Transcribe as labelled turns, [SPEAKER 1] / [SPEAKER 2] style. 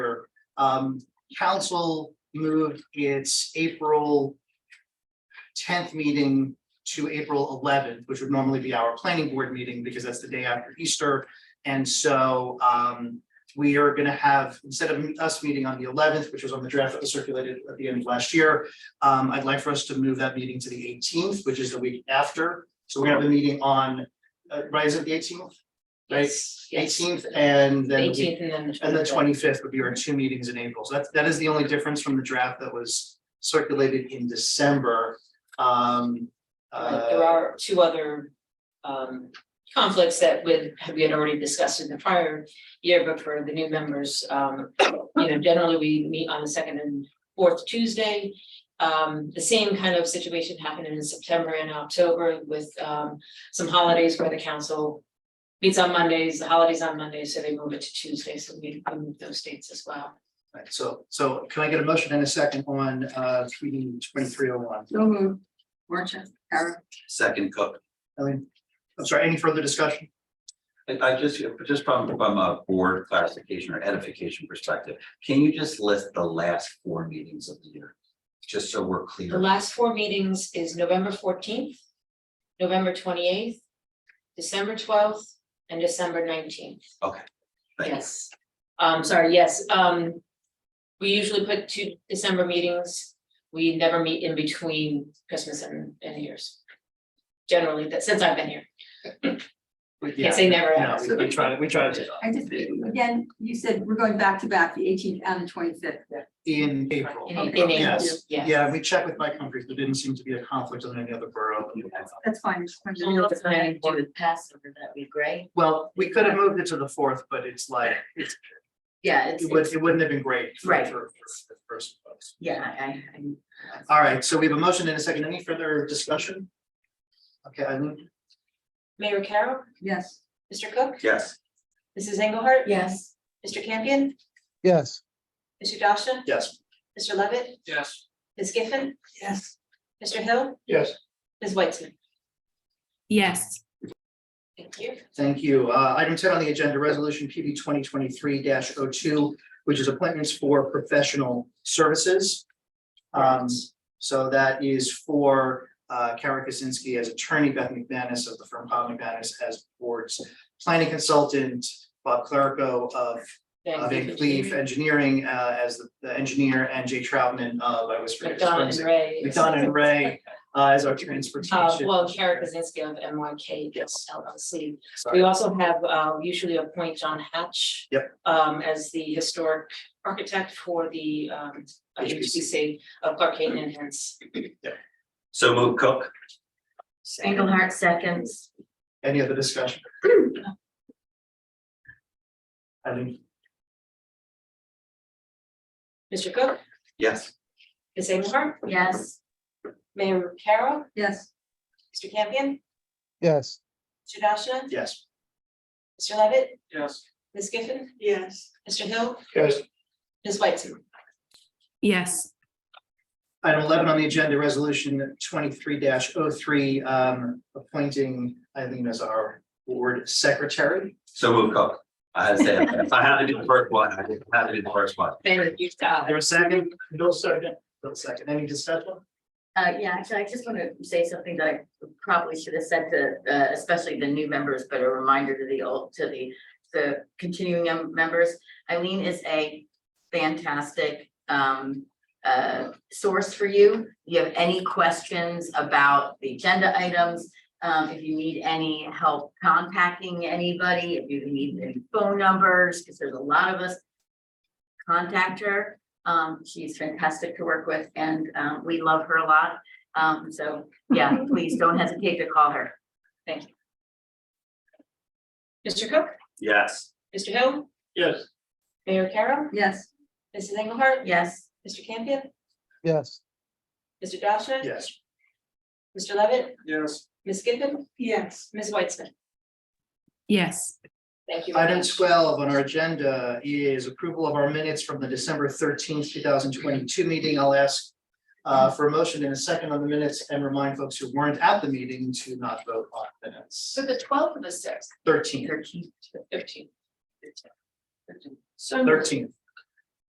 [SPEAKER 1] Um, council moved its April tenth meeting to April eleventh, which would normally be our planning board meeting because that's the day after Easter. And so, um, we are gonna have, instead of us meeting on the eleventh, which was on the draft that was circulated at the end of last year, um, I'd like for us to move that meeting to the eighteenth, which is the week after. So we have a meeting on, uh, right, is it the eighteenth? Right,
[SPEAKER 2] Yes, yes.
[SPEAKER 1] eighteenth and then. the week
[SPEAKER 2] Eighteenth and then the
[SPEAKER 1] and the
[SPEAKER 2] twenty-fifth.
[SPEAKER 1] twenty-fifth would be our two meetings in April. So that's, that is the only difference from the draft that was circulated in December. Um,
[SPEAKER 2] Right, There
[SPEAKER 1] uh,
[SPEAKER 2] are two other um conflicts that with, we had already discussed in the prior year, but for the new members, um, you know, generally we meet on the second and fourth Tuesday. Um, the same kind of situation happened in September and October with um some holidays where the council meets on Mondays, the holidays on Mondays, so they move it to Tuesday, so we we move those dates as well.
[SPEAKER 1] right, so, so can I get a motion and a second on, uh, three, twenty-three oh one?
[SPEAKER 3] So moved. Merchant, Karen,
[SPEAKER 4] Second Cook.
[SPEAKER 1] I mean, I'm sorry, any further discussion?
[SPEAKER 4] And I just, just from, from a board clarification or edification perspective, can you just list the last four meetings of the year? Just so we're
[SPEAKER 2] The
[SPEAKER 4] clear.
[SPEAKER 2] last four meetings is November fourteenth, November twenty-eighth, December twelfth, and December nineteenth.
[SPEAKER 4] Thank you.
[SPEAKER 2] Yes. Um, sorry, yes, um, we usually put two December meetings. We never meet in between Christmas and, and New Year's. Generally, that, since I've been here,
[SPEAKER 1] We-
[SPEAKER 2] can't
[SPEAKER 1] Yeah,
[SPEAKER 2] say never
[SPEAKER 1] no,
[SPEAKER 2] have.
[SPEAKER 1] we- we try to, we try to,
[SPEAKER 3] I just, again, you said we're going back to back, the eighteenth and the twenty-fifth.
[SPEAKER 1] in April.
[SPEAKER 2] In, in April,
[SPEAKER 1] Yes,
[SPEAKER 2] yes.
[SPEAKER 1] yeah, we checked with Mike Humphries, there didn't seem to be a conflict on any other borough.
[SPEAKER 3] That's fine. just wanted to
[SPEAKER 5] Well,
[SPEAKER 3] know.
[SPEAKER 5] if I do it passive, would that be great?
[SPEAKER 1] Well, we could have moved it to the fourth, but it's like, it's,
[SPEAKER 5] Yeah, it's,
[SPEAKER 1] it would, it wouldn't have been great. for-
[SPEAKER 5] Right.
[SPEAKER 1] For, for, for some folks.
[SPEAKER 5] yeah, I, I, I'm-
[SPEAKER 1] All right, so we have a motion and a second. Any further discussion? Okay, I move,
[SPEAKER 2] Mayor Carroll,
[SPEAKER 3] Yes,
[SPEAKER 2] Mr. Cook,
[SPEAKER 4] Yes,
[SPEAKER 2] Mrs. Engelhardt?
[SPEAKER 5] yes,
[SPEAKER 2] Mr. Campion,
[SPEAKER 6] yes,
[SPEAKER 2] Mr. Dawson,
[SPEAKER 1] yes.
[SPEAKER 2] Mr. Levitt,
[SPEAKER 1] Yes.
[SPEAKER 2] Ms. Giffen,
[SPEAKER 3] yes,
[SPEAKER 2] Mr. Hill,
[SPEAKER 1] Yes.
[SPEAKER 2] Ms. Weitzman.
[SPEAKER 5] yes.
[SPEAKER 2] Thank you.
[SPEAKER 1] Thank you. Uh, item ten on the agenda, resolution PB twenty twenty-three 2 which is appointments for professional services. Um, so that is for, uh, Kara Kaczynski as attorney, Beth McManus of the firm Bob McManus as boards planning consultant, Bob Clerico of uh, Van Cleef Engineering, uh, as the- the engineer and Jay Troutman of, I was.
[SPEAKER 2] McDonald and Ray.
[SPEAKER 1] McDonald and Ray, uh, as our transportation.
[SPEAKER 2] Uh, well, Kara Kazinski of M Y K
[SPEAKER 1] Yes.
[SPEAKER 2] LLC. We
[SPEAKER 1] Sorry.
[SPEAKER 2] also have, uh, usually appoint John Hatch.
[SPEAKER 1] Yep.
[SPEAKER 2] Um, as the historic architect for the, um, uh,
[SPEAKER 1] HBC.
[SPEAKER 2] HBC of Clark Hayden and hence.
[SPEAKER 4] so move Cook.
[SPEAKER 5] Engelhardt seconds.
[SPEAKER 1] Any other discussion? I think,
[SPEAKER 2] Mr. Cook,
[SPEAKER 4] Yes,
[SPEAKER 2] Ms. Engelhardt,
[SPEAKER 5] yes,
[SPEAKER 2] Mayor Carroll,
[SPEAKER 3] yes,
[SPEAKER 2] Mr. Campion,
[SPEAKER 6] yes,
[SPEAKER 2] Mr. Dashna,
[SPEAKER 1] yes.
[SPEAKER 2] Mr. Levitt,
[SPEAKER 1] Yes.
[SPEAKER 2] Ms. Giffen,
[SPEAKER 3] yes.
[SPEAKER 2] Mr. Hill,
[SPEAKER 1] Yes.
[SPEAKER 2] Ms. Weitzman.
[SPEAKER 5] yes.
[SPEAKER 1] Item eleven on the agenda, resolution twenty-three 3 um, appointing Eileen as our board secretary.
[SPEAKER 4] so move Cook. I had to say, it. if I had to do the first one, I had to do the first one.
[SPEAKER 2] Thank you.
[SPEAKER 1] There a second? No second. No second. Any discussion?
[SPEAKER 5] Uh, yeah, actually, I just want to say something that I probably should have said to, uh, especially the new members, but a reminder to the old, to the, the continuing mem- members. Eileen is a fantastic, um, uh, source for you. You have any questions about the agenda items? Um, if you need any help contacting anybody, if you need any phone numbers, because there's a lot of us, contact her. Um, she's fantastic to work with and, um, we love her a lot. Um, so, yeah, please don't hesitate to call her.
[SPEAKER 2] Mr. Cook,
[SPEAKER 4] Yes,
[SPEAKER 2] Mr. Hill,
[SPEAKER 1] Yes.
[SPEAKER 2] Mayor Carroll,
[SPEAKER 3] Yes,
[SPEAKER 2] Mrs. Engelhardt,
[SPEAKER 5] Yes,
[SPEAKER 2] Mr. Campion,
[SPEAKER 6] yes.
[SPEAKER 2] Mr. Dashna.
[SPEAKER 1] Yes.
[SPEAKER 2] Mr. Levitt,
[SPEAKER 1] Yes.
[SPEAKER 2] Ms. Giffen? Yes. Ms. Weitzman?
[SPEAKER 5] yes.
[SPEAKER 2] Thank you. very
[SPEAKER 1] Item
[SPEAKER 2] much.
[SPEAKER 1] twelve on our agenda is approval of our minutes from the December thirteenth, two thousand twenty-two meeting. I'll ask uh, for a motion in a second on the minutes and remind folks who weren't at the meeting to not vote on minutes.
[SPEAKER 2] So the twelfth of the sixth,
[SPEAKER 1] Thirteen,
[SPEAKER 5] Thirteen.
[SPEAKER 2] thirteenth.
[SPEAKER 1] thirteen.